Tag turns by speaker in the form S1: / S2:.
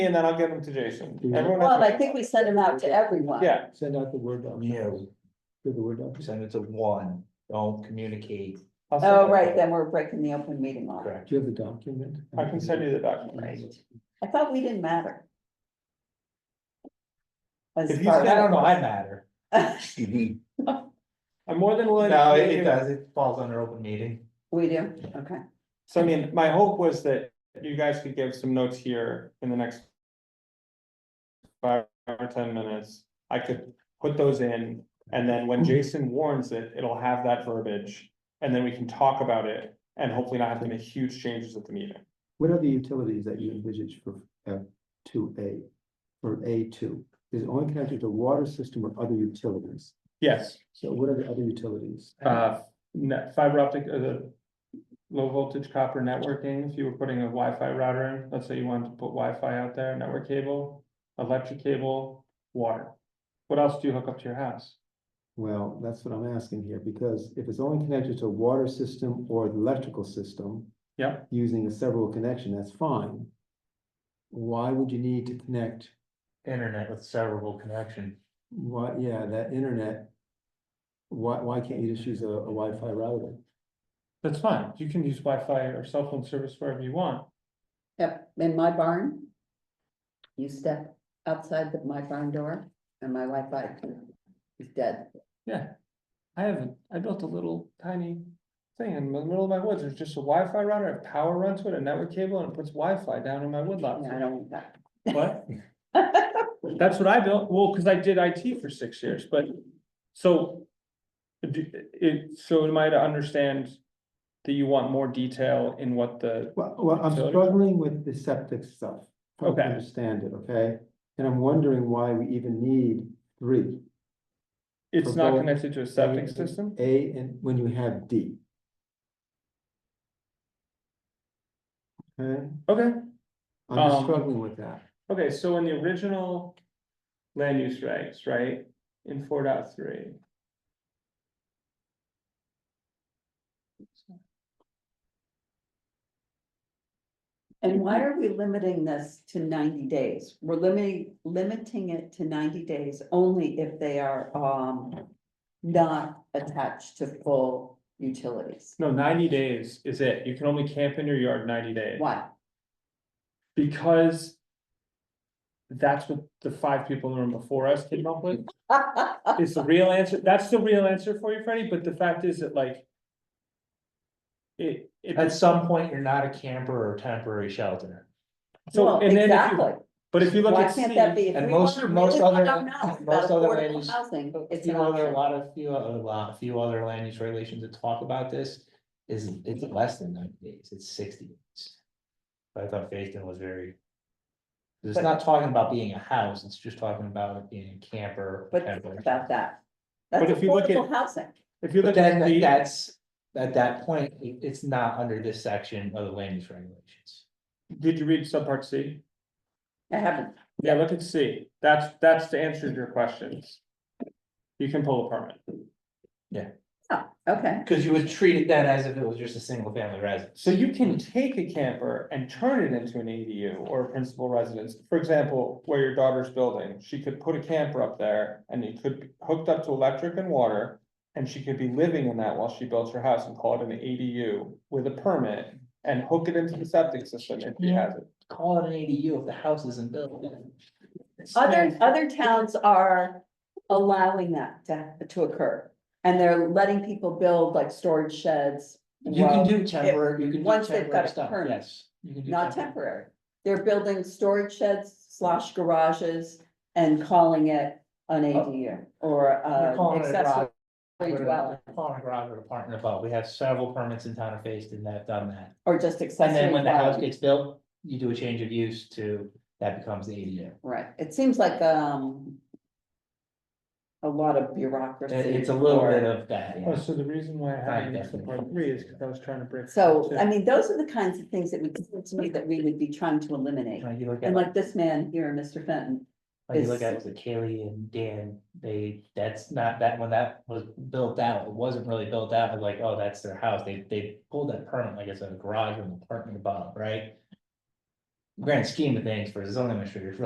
S1: and then I'll give them to Jason.
S2: Mm-hmm.
S3: Yeah.
S1: Everyone has
S4: Well,
S1: to-
S4: I think we send them out to everyone.
S1: Yeah,
S3: Send out the word doc.
S2: Yeah, we
S3: Do the word doc.
S2: send it to one, don't communicate,
S1: I'll send
S4: Oh,
S1: it.
S4: right, then we're breaking the open meeting law.
S2: correct?
S3: Do you have the document?
S1: I can send you the document.
S4: Right. I thought we didn't matter. As
S1: If you
S4: far-
S2: I don't know, I matter.
S1: I'm more than willing. to
S2: No,
S1: give
S2: it
S1: you-
S2: does, it falls under open meeting.
S4: We do, okay.
S1: So I mean, my hope was that you guys could give some notes here in the next. Five or ten minutes, I could put those in, and then when
S2: Mm-hmm.
S1: Jason warns it, it'll have that verbiage. And then we can talk about it and hopefully not have to make huge changes at the meeting.
S3: What are the utilities that you envisage for F two A? For A two, is it only connected to water system or other utilities?
S1: Yes,
S3: So what are the other utilities?
S1: uh, net fiber optic, uh, the. Low voltage copper networking, if you were putting a Wi-Fi router in, let's say you wanted to put Wi-Fi out there, network cable, electric cable, water. What else do you hook up to your house?
S3: Well, that's what I'm asking here, because if it's only connected to water system or the electrical system.
S1: Yep.
S3: Using a several connection, that's fine. Why would you need to connect,
S2: Internet with severable connection.
S3: why, yeah, that internet? Why, why can't you just use a a Wi-Fi router?
S1: That's fine, you can use Wi-Fi or cell phone service wherever you want.
S4: Yep, in my barn. You step outside the- my barn door and my Wi-Fi is dead.
S1: I haven't, I built a little tiny thing in the middle of my woods, there's just a Wi-Fi router, a power run to it, a network cable, and it puts Wi-Fi down in my woodlot.
S4: Yeah, I don't want that.
S1: What? That's what I built, well, cause I did IT for six years, but, so. do- It, so am I to understand that you want more detail in what the,
S3: Well, well, I'm
S1: Utilities?
S3: struggling with the septic stuff. trying to
S1: Okay.
S3: Understand it, okay? And I'm wondering why we even need three.
S1: it's not
S3: Proposed-
S1: connected to a septic system?
S3: A and when you have D. Okay,
S1: Okay.
S3: I'm just
S1: Um,
S3: struggling with that.
S1: Okay, so in the original land use regs, right, in four dot three.
S4: And why are we limiting this to ninety days? We're limiting, limiting it to ninety days only if they are, um, not attached to full utilities.
S1: No, ninety days is it. You can only camp in your yard ninety days.
S4: Why?
S1: Because that's what the five people in the room before us came up with. It's the real answer. That's the real answer for you, Freddie, but the fact is that like it,
S2: At
S1: it,
S2: some point, you're not a camper or temporary shelter.
S1: so,
S4: Well,
S1: and then if you,
S4: exactly.
S1: but if you look
S4: Why
S1: at
S4: can't
S1: C,
S4: that be? If
S2: and
S4: we
S2: most-
S4: wanna
S2: most
S4: really
S2: other-
S4: find out now
S2: most
S4: about
S2: other
S4: affordable
S2: ways-
S4: Housing,
S2: A
S4: it's an
S2: few other, a
S4: option.
S2: lot of, few other, lot, few other land use regulations that talk about this is, it's less than ninety days, it's sixty. days. But I thought Facein was very. 'cause It's not talking about being a house, it's just talking about being a camper.
S4: But
S2: temporary
S4: think about that.
S1: But
S4: That's
S1: if you look at-
S4: affordable housing.
S1: if you
S2: But
S1: look
S2: then
S1: at
S2: that-
S1: D,
S2: that's, at that point, it- it's not under this section of the land use regulations.
S1: did you read subpart C?
S4: I haven't,
S1: Yeah, look at C. That's, that's the answer to your questions. You can pull a permit.
S4: oh, okay.
S2: Cause you would treat it then as if it was just a single family residence.
S1: So you can take a camper and turn it into an ADU or a principal residence. For example, where your daughter's building, she could put a camper up there and it could be hooked up to electric and water. And she could be living in that while she builds her house and call it an ADU with a permit and hook it into the septic system if she has it.
S2: Call it an ADU if the house isn't built.
S4: Other, other towns are allowing that to, to occur. And they're letting people build like storage sheds.
S2: You can
S4: well,
S2: do temporary, you can do
S4: once they've got
S2: temporary
S4: a
S2: stuff,
S4: permit.
S2: yes. you can do
S4: Not temporary. They're building storage sheds slash garages and calling it an ADU or
S2: They're
S4: uh
S2: Oh. calling it a
S4: accessory
S2: garage, but
S4: dwelling
S2: they're Calling a garage or apartment above, we have several permits in town of Facein that have done that.
S4: or just
S2: And
S4: accessory
S2: then when the house
S4: dwelling.
S2: gets built, you do a change of use to, that becomes the ADU.
S4: Right, it seems like um a lot of bureaucracy.
S2: It- It's a little
S4: or-
S2: bit of that, yeah.
S1: Oh, so the reason why I
S2: had it in subpart three is 'cause I
S1: was trying to break.
S4: So, I mean, those are the kinds of things that would, seem to me that we would be trying to eliminate.
S2: Like you look at,
S4: And
S2: like
S4: like this man here, Mr. Fenton,
S2: you look
S4: is-
S2: at the Kaylee and Dan, they, that's not that, when that was built out, it wasn't really built out, it was like, oh, that's their house, they, they pulled that permit, like it's a garage or an apartment above, right? grand scheme of things for a zoning administrator, it's